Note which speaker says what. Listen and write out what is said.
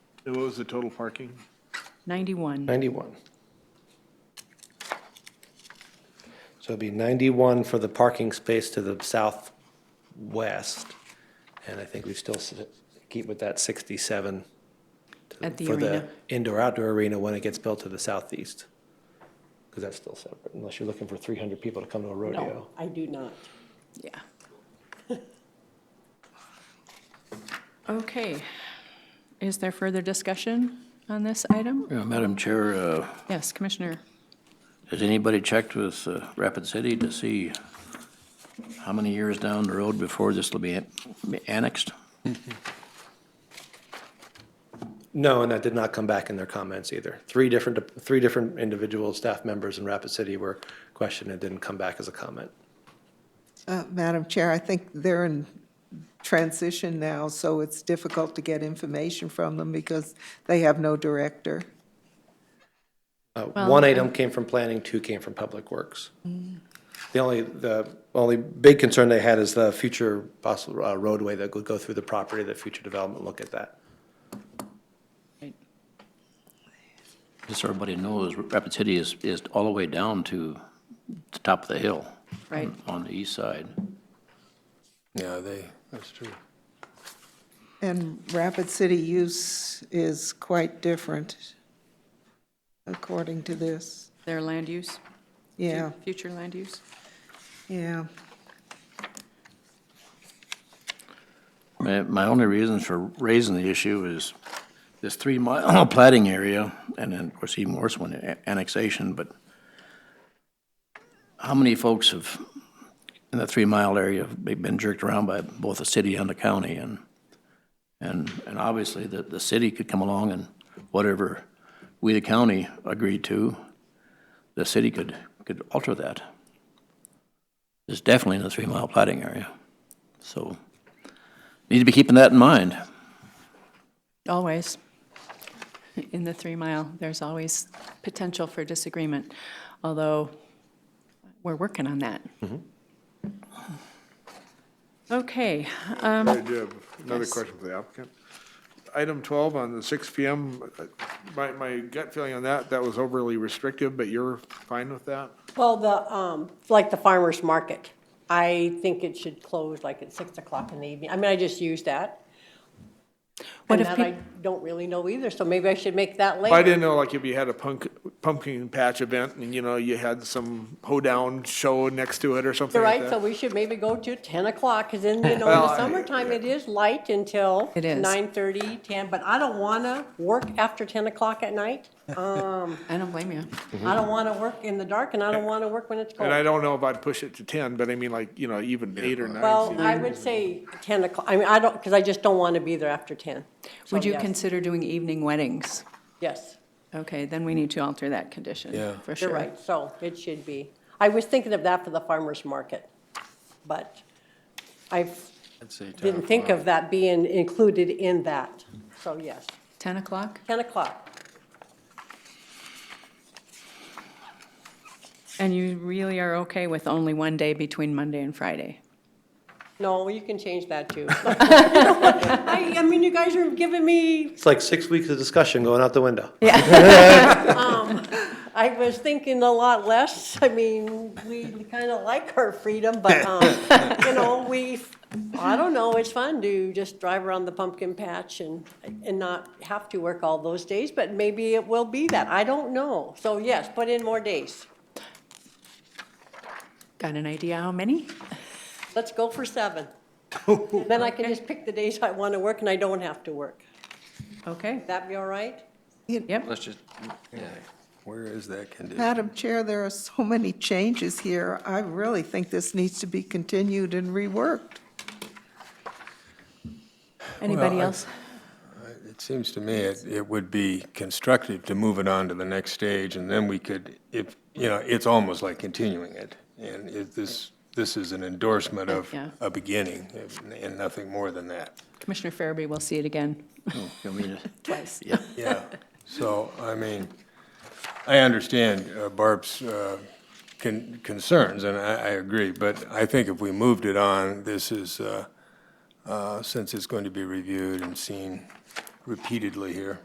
Speaker 1: And what was the total parking?
Speaker 2: 91.
Speaker 3: 91. So it'd be 91 for the parking space to the southwest, and I think we still s- keep with that 67 to-
Speaker 2: At the
Speaker 3: for the
Speaker 2: arena.
Speaker 3: indoor-outdoor arena when it gets built to the southeast, because that's still separate, unless you're looking for 300 people to come to a rodeo.
Speaker 4: No, I do not.
Speaker 2: Yeah. Okay. Is there further discussion on this item?
Speaker 5: Yeah, Madam Chair, uh,
Speaker 2: Yes, Commissioner.
Speaker 5: has anybody checked with uh, Rapid City to see how many years down the road before this will be an- be annexed?
Speaker 3: No, and that did not come back in their comments either. Three different, three different individual staff members in Rapid City were questioned and didn't come back as a comment.
Speaker 6: Uh, Madam Chair, I think they're in transition now, so it's difficult to get information from them because they have no director.
Speaker 3: Uh, One item came from planning, two came from Public Works. The only, the only big concern they had is the future possible uh, roadway that would go through the property, that future development, look at that.
Speaker 5: Just so everybody knows, Rapid City is, is all the way down to the top of the hill.
Speaker 2: Right.
Speaker 5: On the east side.
Speaker 7: Yeah, they,
Speaker 6: And Rapid City use is quite different, according to this.
Speaker 2: Their land use?
Speaker 6: Yeah,
Speaker 2: Future land use?
Speaker 6: yeah.
Speaker 5: My, my only reason for raising the issue is this three-mile plating area, and then, of course, even worse when a- annexation, but how many folks have, in that three-mile area, have been jerked around by both the city and the county, and, and, and obviously, the, the city could come along and whatever we, the county, agreed to, the city could, could alter that. It's definitely in the three-mile plating area, so. Need to be keeping that in mind.
Speaker 2: Always. In the three mile, there's always potential for disagreement, although we're working on that. Okay,
Speaker 1: I do have another question for the applicant. Item 12 on the 6 PM, uh, my, my gut feeling on that, that was overly restrictive, but you're fine with that?
Speaker 4: Well, the, um, like the farmer's market, I think it should close like at six o'clock in the evening. I mean, I just use that.
Speaker 2: What
Speaker 4: And
Speaker 2: if
Speaker 4: that
Speaker 2: peop-
Speaker 4: I don't really know either, so maybe I should make that later.
Speaker 1: I didn't know, like, if you had a punk, pumpkin patch event and, you know, you had some hoedown show next to it or something
Speaker 4: You're
Speaker 1: like
Speaker 4: right, so
Speaker 1: that.
Speaker 4: we should maybe go to ten o'clock, because then, you know, in
Speaker 1: Well,
Speaker 4: the
Speaker 1: I-
Speaker 4: summertime, it is light until
Speaker 2: It is.
Speaker 4: nine thirty, ten, but I don't wanna work after ten o'clock at night. Um,
Speaker 2: I don't blame you.
Speaker 4: I don't wanna work in the dark, and I don't wanna work when it's cold.
Speaker 1: And I don't know if I'd push it to 10, but I mean, like, you know, even 8 or 9.
Speaker 4: Well, I would say ten o'clock, I mean, I don't, because I just don't wanna be there after ten. So,
Speaker 2: Would you
Speaker 4: yes,
Speaker 2: consider doing evening weddings?
Speaker 4: Yes.
Speaker 2: Okay, then we need to alter that condition.
Speaker 7: Yeah.
Speaker 2: For sure.
Speaker 4: You're right, so it should be. I was thinking of that for the farmer's market, but I didn't think of that being included in that, so yes,
Speaker 2: 10 o'clock?
Speaker 4: 10 o'clock.
Speaker 2: And you really are okay with only one day between Monday and Friday?
Speaker 4: No, you can change that too. I, I mean, you guys are giving me,
Speaker 3: It's like six weeks of discussion going out the window.
Speaker 4: I was thinking a lot less. I mean, we kind of like our freedom, but, um, you know, we, I don't know, it's fun to just drive around the pumpkin patch and, and not have to work all those days, but maybe it will be that. I don't know. So yes, put in more days.
Speaker 2: Got an idea how many?
Speaker 4: Let's go for seven. Then I can just pick the days I want to work and I don't have to work.
Speaker 2: Okay,
Speaker 4: That be all right?
Speaker 2: yep.
Speaker 7: let's just, yeah, where is that condition?
Speaker 6: Madam Chair, there are so many changes here. I really think this needs to be continued and reworked.
Speaker 2: Anybody
Speaker 7: Well, I-
Speaker 2: else?
Speaker 7: It seems to me it, it would be constructive to move it on to the next stage, and then we could, if, you know, it's almost like continuing it. And if this, this is an endorsement of
Speaker 2: Yeah.
Speaker 7: a beginning, and- and nothing more than that.
Speaker 2: Commissioner Farabee will see it again
Speaker 5: I mean,
Speaker 2: twice.
Speaker 7: Yeah, so, I mean, I understand uh, Barb's uh, con- concerns, and I, I agree, but I think if we moved it on, this is, uh, uh, since it's going to be reviewed and seen repeatedly here,